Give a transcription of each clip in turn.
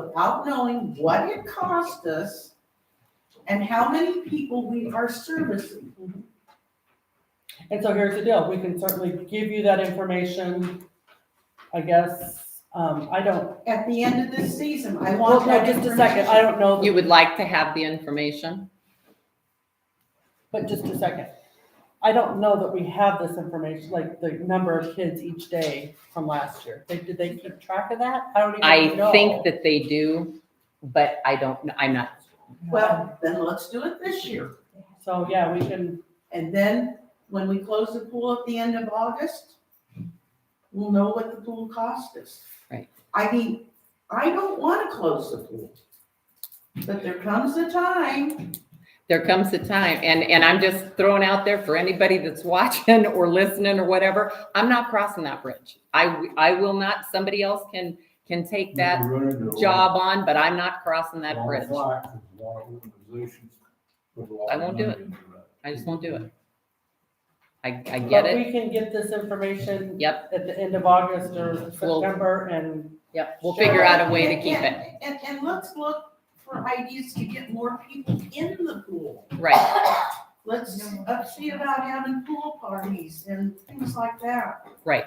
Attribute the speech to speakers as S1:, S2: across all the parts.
S1: without knowing what it cost us and how many people we are servicing.
S2: And so here's the deal, we can certainly give you that information, I guess, um, I don't,
S1: At the end of this season, I
S2: well,
S1: want
S2: no,
S1: that
S2: just a second, I
S1: information.
S2: don't know,
S3: You would like to have the information?
S2: but just a second. I don't know that we have this information, like the number of kids each day from last year, they, did they keep track of that? I don't even know.
S3: I think that they do, but I don't, kn- I'm not,
S1: Well, then let's do it this year.
S2: So, yeah, we can,
S1: And then when we close the pool at the end of August, we'll know what the pool cost us.
S3: Right.
S1: I mean, I don't want to close the pool. But there comes a time,
S3: there comes a time, and, and I'm just throwing out there for anybody that's watching or listening or whatever, I'm not crossing that bridge. I, w- I will not, somebody else can, can take that job on, but I'm not crossing that bridge. I won't do it. I just won't do it. I, I get
S2: but
S3: it.
S2: we can get this information.
S3: Yep.
S2: At the end of August or
S3: We'll-
S2: September and
S3: Yep, we'll figure out a way to keep it.
S1: And, and- and let's look for ideas to get more people in the pool.
S3: Right,
S1: Let's uh, see about having pool parties and things like that.
S3: right.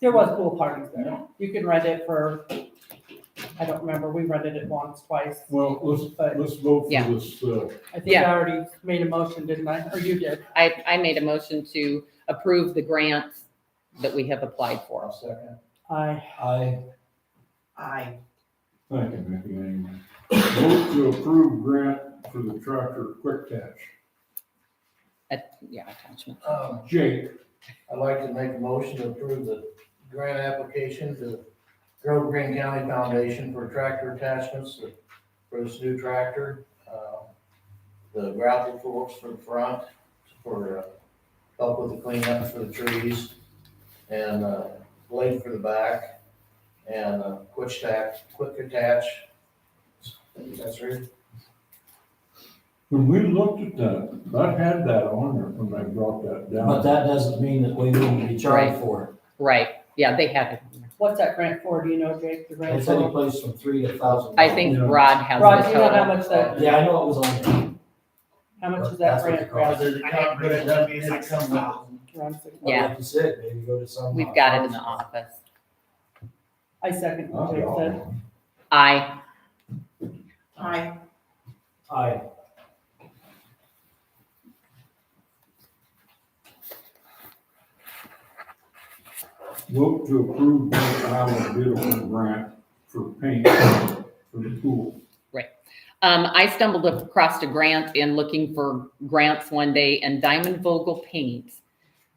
S2: There was pool parties there. You can rent it for, I don't remember, we rented it once, twice.
S4: Well, let's,
S2: But
S4: let's vote for
S3: Yeah.
S4: this, uh,
S2: I think I
S3: Yeah.
S2: already made a motion, didn't I? Or you did.
S3: I, I made a motion to approve the grant that we have applied for.
S5: second.
S2: I,
S5: I.
S1: I,
S4: thank you, Mickey, anyway. Vote to approve grant for the tractor quick catch.
S3: Yeah, attachment.
S5: Um,
S4: Jake,
S5: I'd like to make a motion to approve the grant application to Grove Green County Foundation for tractor attachments for this new tractor. um, The gravel forks for the front, for, uh, help with the cleanup for the trees, and, uh, blade for the back, and a quick stack, quick attach. I think That's right.
S4: when we looked at that, that had that on there when they brought that
S6: But
S4: down.
S6: that doesn't mean that we wouldn't be charged for
S3: Right, yeah, they have it.
S2: what's that grant for? Do you know, Jake, the
S6: it.
S2: grant?
S6: It's
S2: for?
S6: any place from three to thousand.
S3: I think
S4: Yeah.
S3: Rod has
S2: Rod, do
S3: the
S2: you know how
S3: total.
S2: much that,
S6: Yeah, I know it was on there.
S2: how much is that
S6: That's what
S2: grant?
S6: it costs.
S2: Rod?
S5: Does it come- does it come- does it come with-
S2: Around six-
S6: But
S3: Yeah.
S6: Like you said, maybe go to some.
S3: We've got it in the office.
S2: I second
S4: Not
S2: what Jake
S4: at all.
S2: said.
S3: I,
S1: I,
S6: Aye.
S4: Vote to approve North Iowa Beautiful grant for paint for the pool.
S3: um, I stumbled across a grant in looking for grants one day and Diamond Vogel Paint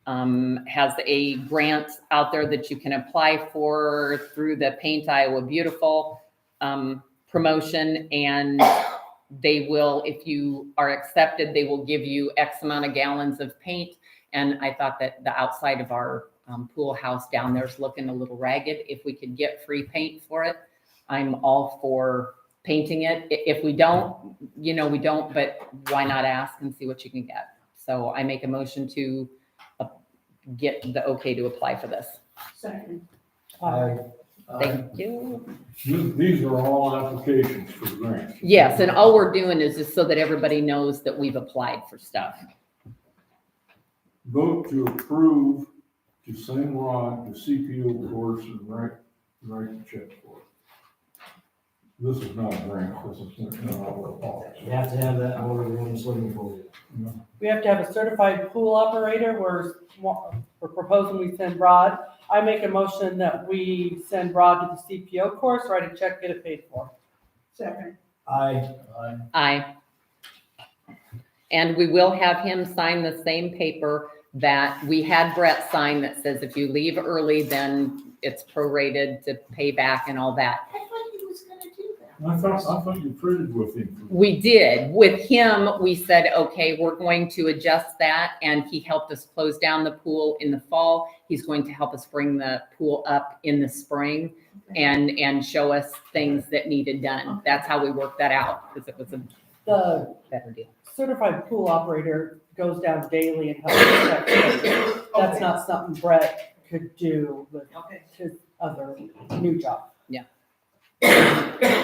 S3: um, has a grant out there that you can apply for through the Paint Iowa Beautiful um, promotion. And they will, if you are accepted, they will give you X amount of gallons of paint. And I thought that the outside of our um, pool house down there is looking a little ragged. If we could get free paint for it, I'm all for painting it. I- If we don't, you know, we don't, but why not ask and see what you can get? So I make a motion to uh, get the okay to apply for this.
S1: second,
S2: Uh,
S6: Aye.
S3: Thank you.
S4: These these are all applications for grants.
S3: Yes, and all we're doing is just so that everybody knows that we've applied for stuff.
S4: Vote to approve to send Rod to CPO course and write, write the check for it. This is not a grant, this is not our policy.
S6: You have to have that in order to run a swimming pool.
S2: We have to have a certified pool operator. We're, we're proposing we send Rod. I make a motion that we send Rod to the CPO course, write a check, get it paid for.
S1: second.
S6: Aye.
S5: Aye.
S3: Aye. And we will have him sign the same paper that we had Brett sign that says if you leave early, then it's prorated to pay back and all that.
S1: I thought he was gonna do that.
S4: I thought, I thought you traded with him.
S3: We did. With him, we said, okay, we're going to adjust that. And he helped us close down the pool in the fall. He's going to help us bring the pool up in the spring and, and show us things that needed done. That's how we worked that out because it was a
S2: The
S3: better deal.
S2: certified pool operator goes down daily and helps check. things. That's not something Brett could do with
S1: Okay.
S2: his other new job.
S3: Yeah.